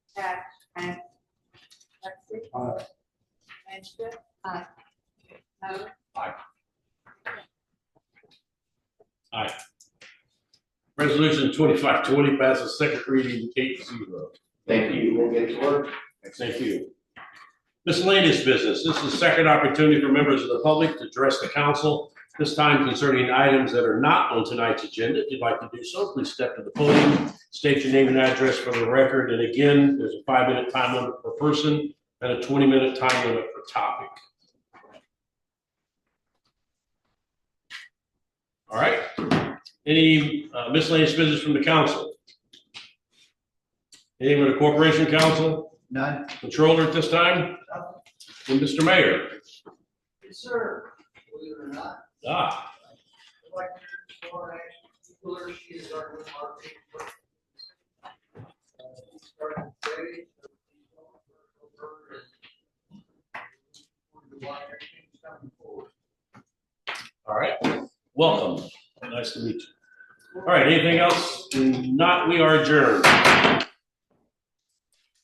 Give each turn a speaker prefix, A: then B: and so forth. A: Aye.
B: Manship. Aye. Mo.
C: Resolution twenty-five twenty passes second reading eight zero.
D: Thank you. We'll get to work.
C: Thank you. Miscellaneous business. This is the second opportunity for members of the public to address the council, this time concerning items that are not on tonight's agenda. If you'd like to do so, please step to the podium, state your name and address for the record. And again, there's a five-minute time limit per person and a twenty-minute time limit per topic. All right. Any uh, miscellaneous business from the council? Anyone in the corporation council?
D: None.
C: Controller at this time? And Mr. Mayor?
E: Yes, sir. Believe it or not,
C: Ah,
E: Electric, Florida, Cooler, she is our new marketing. person. Uh, we started today, so we don't work over and we're the water team's coming forward.
C: all right. Welcome. Nice to meet you. All right, anything else? Not, we are adjourned.